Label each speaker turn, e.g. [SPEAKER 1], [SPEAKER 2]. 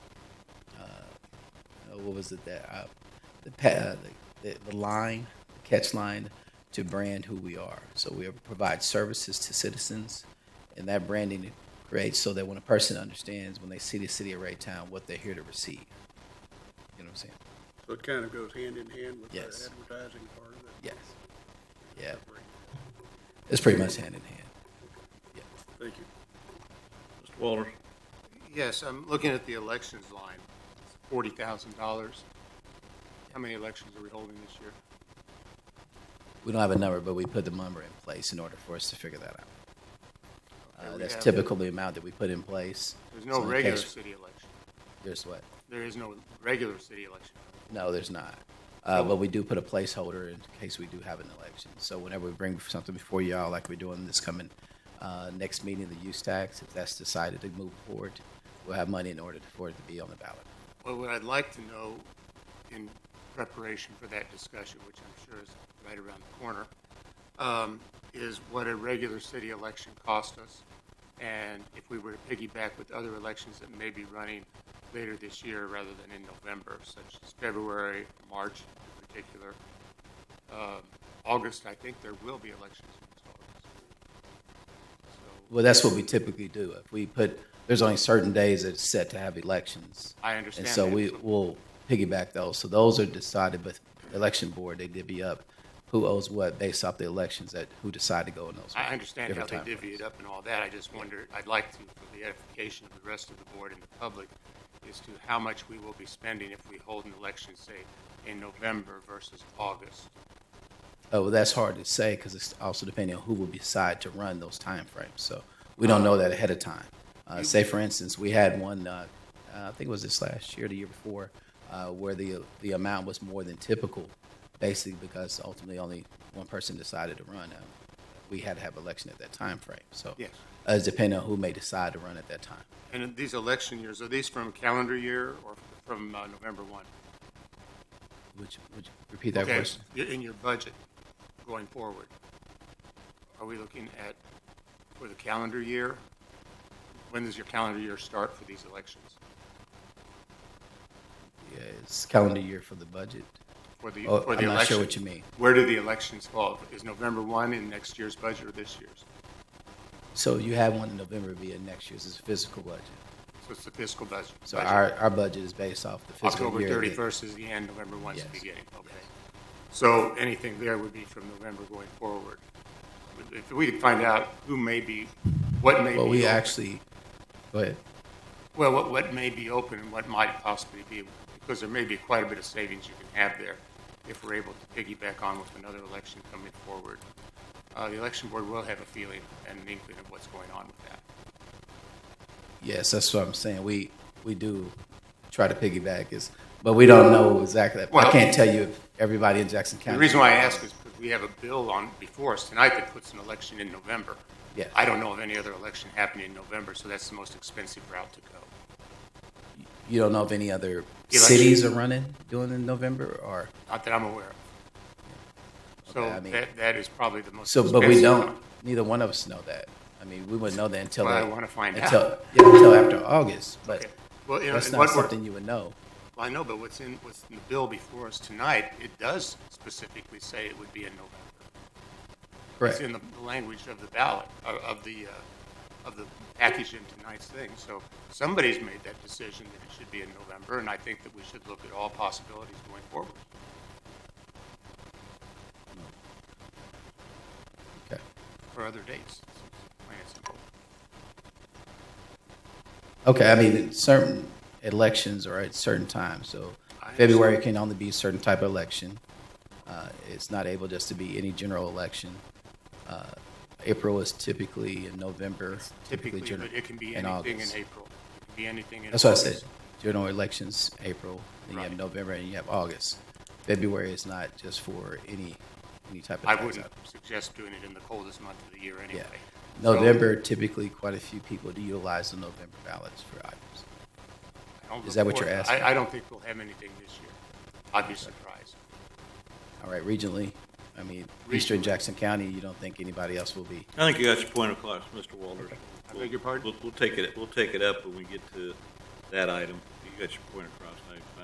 [SPEAKER 1] what was it that uh, the, pa- uh, the, the the line catch line to brand who we are. So we provide services to citizens, and that branding creates so that when a person understands when they see the city of Raytown what they're here to receive. You know what I'm saying?
[SPEAKER 2] So it kind of goes hand in hand with the
[SPEAKER 1] Yes.
[SPEAKER 2] advertising part of it.
[SPEAKER 1] Yes. Yeah, it's pretty much hand in hand.
[SPEAKER 2] Thank you.
[SPEAKER 3] Mr. Walters?
[SPEAKER 4] Yes, I'm looking at the elections line, forty thousand dollars. How many elections are we holding this year?
[SPEAKER 1] We don't have a number, but we put the number in place in order for us to figure that out.
[SPEAKER 4] Okay,
[SPEAKER 1] Uh,
[SPEAKER 4] we
[SPEAKER 1] that's
[SPEAKER 4] have-
[SPEAKER 1] typical the amount that we put in place.
[SPEAKER 4] There's
[SPEAKER 1] So
[SPEAKER 4] no
[SPEAKER 1] in
[SPEAKER 4] regular
[SPEAKER 1] case-
[SPEAKER 4] city election.
[SPEAKER 1] There's what?
[SPEAKER 4] There is no regular city election.
[SPEAKER 1] No, there's not. Uh, but we do put a placeholder in case we do have an election. So whenever we bring something before y'all, like we're doing this coming uh, next meeting, the use tax, if that's decided to move forward, we'll have money in order for it to be on the ballot.
[SPEAKER 4] Well, what I'd like to know in preparation for that discussion, which I'm sure is right around the corner, um, is what a regular city election cost us. And if we were to piggyback with other elections that may be running later this year rather than in November, such as February, March in particular. Um, August, I think there will be elections in August. So
[SPEAKER 1] Well, that's what we typically do. If we put, there's only certain days that's set to have elections.
[SPEAKER 4] I
[SPEAKER 1] And
[SPEAKER 4] understand that.
[SPEAKER 1] so we will piggyback those. So those are decided with the election board. They divvy up who owes what based off the elections that who decide to go in those.
[SPEAKER 4] I understand how
[SPEAKER 1] different
[SPEAKER 4] they
[SPEAKER 1] time
[SPEAKER 4] divvy
[SPEAKER 1] frames.
[SPEAKER 4] it up and all that, I just wonder, I'd like to, for the edification of the rest of the board and the public, as to how much we will be spending if we hold an election, say, in November versus August.
[SPEAKER 1] Oh, well, that's hard to say because it's also depending on who will decide to run those timeframes. So we don't know that ahead of time. Uh, say, for instance, we had one, uh, uh, I think it was this last year, the year before, uh, where the the amount was more than typical, basically because ultimately only one person decided to run. Uh, we had to have election at that time frame. So
[SPEAKER 4] Yes.
[SPEAKER 1] uh, it's depending on who may decide to run at that time.
[SPEAKER 4] And in these election years, are these from calendar year or from uh, November one?
[SPEAKER 1] Would you, would you repeat that
[SPEAKER 4] Okay,
[SPEAKER 1] question?
[SPEAKER 4] you're in your budget going forward, are we looking at for the calendar year? When does your calendar year start for these elections?
[SPEAKER 1] Yeah, it's calendar year for the budget.
[SPEAKER 4] For the,
[SPEAKER 1] Oh,
[SPEAKER 4] for the
[SPEAKER 1] I'm not sure
[SPEAKER 4] election?
[SPEAKER 1] what you mean.
[SPEAKER 4] Where do the elections fall? Is November 1 in next year's budget or this year's?
[SPEAKER 1] So you have one in November via next year's. It's a fiscal budget.
[SPEAKER 4] So it's the fiscal budget.
[SPEAKER 1] So
[SPEAKER 4] budget.
[SPEAKER 1] our, our budget is based off the fiscal
[SPEAKER 4] October
[SPEAKER 1] year. that-
[SPEAKER 4] 31st is the end, November 1 is the
[SPEAKER 1] Yes.
[SPEAKER 4] beginning. Okay. So anything there would be from November going forward. If we could find out who may be, what may be.
[SPEAKER 1] Well, we
[SPEAKER 4] open-
[SPEAKER 1] actually, go ahead.
[SPEAKER 4] Well, what, what may be open and what might possibly be, because there may be quite a bit of savings you can have there if we're able to piggyback on with another election coming forward. Uh, The election board will have a feeling and an inkling of what's going on with that.
[SPEAKER 1] Yes, that's what I'm saying. We, we do try to piggyback is, but we don't know exactly. I
[SPEAKER 4] Well-
[SPEAKER 1] can't tell you if everybody in Jackson County.
[SPEAKER 4] The reason why I ask is because we have a bill on before us tonight that puts an election in November.
[SPEAKER 1] Yes.
[SPEAKER 4] I don't know of any other election happening in November, so that's the most expensive route to go.
[SPEAKER 1] You don't know if any other
[SPEAKER 4] Election.
[SPEAKER 1] cities are running doing in November or,
[SPEAKER 4] Not that I'm aware of. So
[SPEAKER 1] Okay, I mean-
[SPEAKER 4] that, that is probably the most
[SPEAKER 1] so,
[SPEAKER 4] expensive.
[SPEAKER 1] but we
[SPEAKER 4] route.
[SPEAKER 1] don't, neither one of us know that. I mean, we wouldn't know that until.
[SPEAKER 4] Well, I
[SPEAKER 1] like-
[SPEAKER 4] wanna find out.
[SPEAKER 1] Until, yeah, until after August, but
[SPEAKER 4] Okay. Well, you know,
[SPEAKER 1] that's
[SPEAKER 4] and
[SPEAKER 1] not
[SPEAKER 4] what we're-
[SPEAKER 1] something you would know.
[SPEAKER 4] Well, I know, but what's in, what's in the bill before us tonight, it does specifically say it would be in November. It's
[SPEAKER 1] Correct.
[SPEAKER 4] in the the language of the ballot, of- of the, uh, of the package in tonight's thing. So somebody's made that decision that it should be in November, and I think that we should look at all possibilities going forward.
[SPEAKER 1] Okay.
[SPEAKER 4] for other dates. Plain and simple.
[SPEAKER 1] Okay, I mean, certain elections are at certain times, so
[SPEAKER 4] I
[SPEAKER 1] February can only be a certain type of election. Uh, It's not able just to be any general election. Uh, April is typically in November, typically
[SPEAKER 4] Typically,
[SPEAKER 1] general.
[SPEAKER 4] but it can be
[SPEAKER 1] and
[SPEAKER 4] anything in
[SPEAKER 1] August.
[SPEAKER 4] April. It can be anything in.
[SPEAKER 1] That's what I
[SPEAKER 4] August.
[SPEAKER 1] said, general elections, April, then you have
[SPEAKER 4] Right.
[SPEAKER 1] November, and you have August. February is not just for any, any type of.
[SPEAKER 4] I
[SPEAKER 1] tax
[SPEAKER 4] wouldn't
[SPEAKER 1] item.
[SPEAKER 4] suggest doing it in the coldest month of the year anyway.
[SPEAKER 1] Yeah.
[SPEAKER 4] So,
[SPEAKER 1] November, typically, quite a few people do utilize the November ballots for items.
[SPEAKER 4] I don't
[SPEAKER 1] is that what
[SPEAKER 4] report-
[SPEAKER 1] you're asking?
[SPEAKER 4] I, I don't think we'll have anything this year. I'd be surprised.
[SPEAKER 1] All right, regionally, I mean, Eastern
[SPEAKER 4] Regionally.
[SPEAKER 1] Jackson County, you don't think anybody else will be?
[SPEAKER 3] I think you got your point across, Mr. Walters.
[SPEAKER 4] I beg your pardon?
[SPEAKER 3] We'll, we'll take it, we'll take it up when we get to that item. You got your point across. I- I